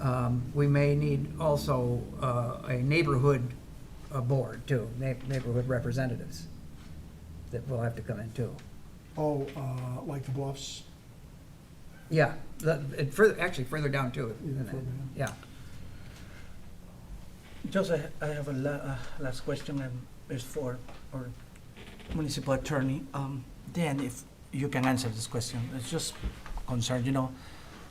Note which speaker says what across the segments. Speaker 1: Um, We may need also uh, a neighborhood uh, board too, neigh- neighborhood representatives that will have to come in too.
Speaker 2: Oh, uh, like the Bluffs?
Speaker 1: Yeah, the- it further, actually further down too.
Speaker 2: Even further down.
Speaker 1: Yeah,
Speaker 3: Just, I, I have a la, uh, last question, and it's for our municipal attorney. Um, Dan, if you can answer this question, it's just concerned, you know,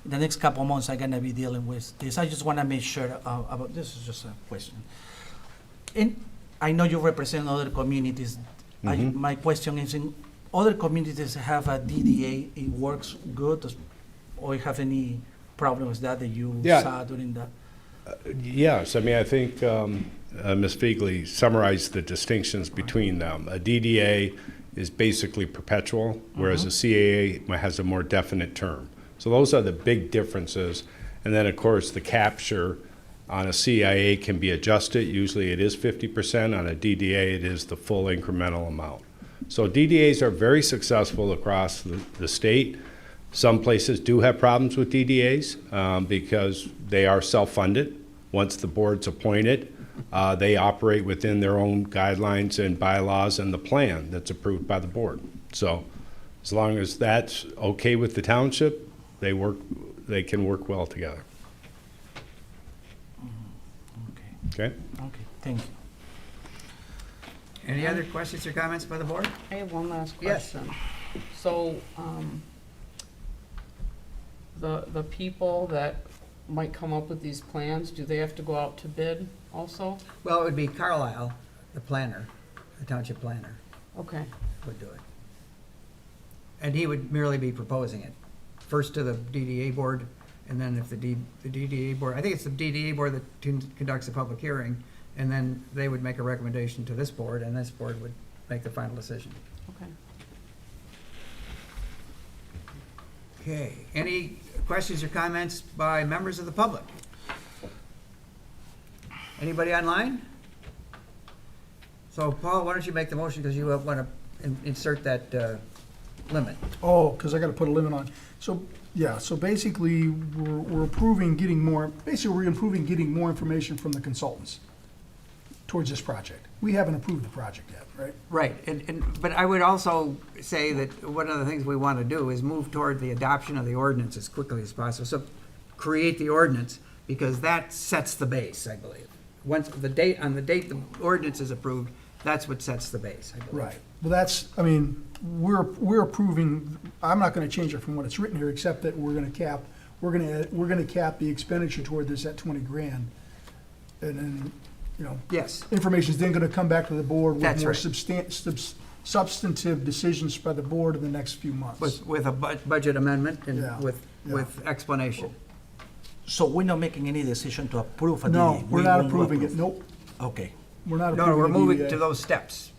Speaker 3: the next couple months I'm gonna be dealing with this. I just wanna make sure uh, about, this is just a question. And I know you represent other communities. I- My question is, in other communities have a DDA, it works good, does- or you have any problems that that you
Speaker 4: Yeah.
Speaker 3: saw during the?
Speaker 4: Yes, I mean, I think um, uh, Ms. Feigley summarized the distinctions between them. A DDA is basically perpetual, whereas a CAA mi- has a more definite term. So those are the big differences. And then, of course, the capture on a CIA can be adjusted. Usually it is 50%. On a DDA, it is the full incremental amount. So DDAs are very successful across the, the state. Some places do have problems with DDAs um, because they are self-funded. Once the board's appointed, uh, they operate within their own guidelines and bylaws and the plan that's approved by the board. So as long as that's okay with the township, they work, they can work well together.
Speaker 3: Okay.
Speaker 4: Okay?
Speaker 3: Okay, thank you.
Speaker 1: any other questions or comments by the board?
Speaker 5: I have one last
Speaker 1: Yes.
Speaker 5: question. So, um, the, the people that might come up with these plans, do they have to go out to bid also?
Speaker 1: Well, it would be Carlisle, the planner, the township planner
Speaker 5: Okay,
Speaker 1: would do it. And he would merely be proposing it, first to the DDA board, and then if the D, the DDA board, I think it's the DDA board that tun- conducts the public hearing, and then they would make a recommendation to this board, and this board would make the final decision.
Speaker 5: okay.
Speaker 1: Okay, any questions or comments by members of the public? Anybody online? So Paul, why don't you make the motion, because you want to insert that uh, limit.
Speaker 2: Oh, because I got to put a limit on. So, yeah, so basically, we're, we're approving getting more, basically, we're improving getting more information from the consultants towards this project. We haven't approved the project yet, right?
Speaker 1: Right, and, and, but I would also say that one of the things we want to do is move toward the adoption of the ordinance as quickly as possible. So create the ordinance, because that sets the base, I believe. Once the date, on the date the ordinance is approved, that's what sets the base, I believe.
Speaker 2: Right. Well, that's, I mean, we're, we're approving, I'm not going to change it from what it's written here, except that we're going to cap, we're going to, we're going to cap the expenditure toward this at 20 grand. And then, you know,
Speaker 1: Yes,
Speaker 2: information's then gonna come back to the board
Speaker 1: That's
Speaker 2: with more
Speaker 1: right.
Speaker 2: substan- subs- substantive decisions by the board in the next few months.
Speaker 1: with, with a bu- budget amendment
Speaker 2: Yeah,
Speaker 1: and with,
Speaker 2: yeah.
Speaker 1: with explanation.
Speaker 3: So we're not making any decision to approve a DDA?
Speaker 2: No, we're
Speaker 3: We
Speaker 2: not
Speaker 3: won't
Speaker 2: approving it,
Speaker 3: approve.
Speaker 2: nope,
Speaker 3: Okay,
Speaker 2: we're not approving
Speaker 1: No, we're
Speaker 2: the
Speaker 1: moving
Speaker 2: DDA.
Speaker 1: to those steps.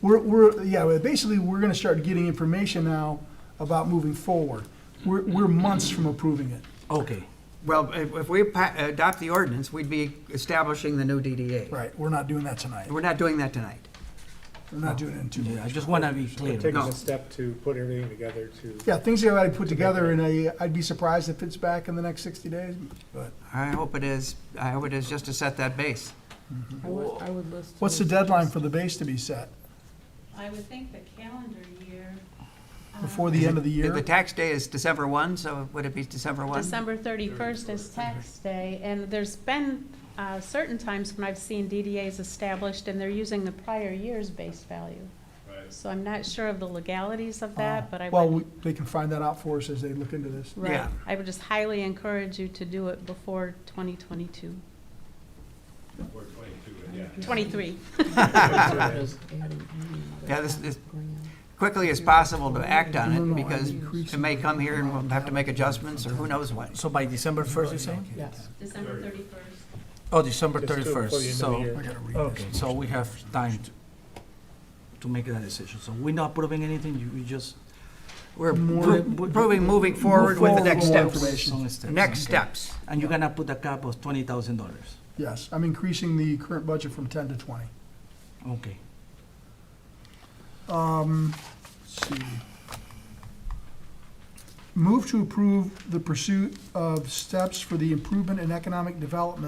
Speaker 2: We're, we're, yeah, well, basically, we're gonna start getting information now about moving forward. We're, we're months from approving it.
Speaker 3: okay,
Speaker 1: Well, if, if we pa- adopt the ordinance, we'd be establishing the new DDA.
Speaker 2: Right, we're not doing that tonight,
Speaker 1: We're not doing that tonight.
Speaker 2: we're not doing it in two
Speaker 3: Yeah, I
Speaker 2: weeks.
Speaker 3: just want to be clear.
Speaker 6: Taking
Speaker 1: No.
Speaker 6: a step to put everything together to.
Speaker 2: Yeah, things that I put together, and I, I'd be surprised if it's back in the next sixty days, but.
Speaker 1: I hope it is, I hope it is just to set that base.
Speaker 5: I would, I would list.
Speaker 2: What's the
Speaker 5: those.
Speaker 2: deadline for the base to be set?
Speaker 7: I would think the calendar year. uh,
Speaker 2: Before the end of the year?
Speaker 1: The tax day is December 1, so would it be December 1?
Speaker 7: December 31st is tax day, and there's been uh, certain times when I've seen DDAs established, and they're using the prior year's base value. So I'm not sure of the legalities of that, but I
Speaker 2: Well,
Speaker 7: would,
Speaker 2: we- they can find that out for us as they look into this.
Speaker 7: right,
Speaker 1: yeah.
Speaker 7: I would just highly encourage you to do it before 2022, 23.
Speaker 5: Just adding any
Speaker 1: Yeah, this, this,
Speaker 5: going on.
Speaker 1: quickly as possible to act on
Speaker 2: No, no,
Speaker 1: it,
Speaker 2: I
Speaker 1: because
Speaker 2: increase
Speaker 1: it may come here and we'll have to make adjustments, or who knows what.
Speaker 3: So by December 1st, you say?
Speaker 5: Yes.
Speaker 7: December 31st.
Speaker 3: Oh, December
Speaker 6: Just to before the end
Speaker 3: 31st,
Speaker 6: of the
Speaker 3: so,
Speaker 6: year.
Speaker 2: I gotta read this.
Speaker 3: okay, so we have time to, to make that decision. So we're not approving anything, you, we just.
Speaker 1: We're
Speaker 2: More-
Speaker 1: pro- proving, moving forward with the
Speaker 2: forward
Speaker 1: next
Speaker 2: with more
Speaker 1: steps.
Speaker 2: information.
Speaker 3: Some steps,
Speaker 1: Next
Speaker 3: okay.
Speaker 1: steps.
Speaker 3: And you're gonna put a cap of twenty thousand dollars,
Speaker 2: Yes, I'm increasing the current budget from ten to twenty.
Speaker 3: okay.
Speaker 2: Um, let's see. Move to approve the pursuit of steps for the improvement and economic development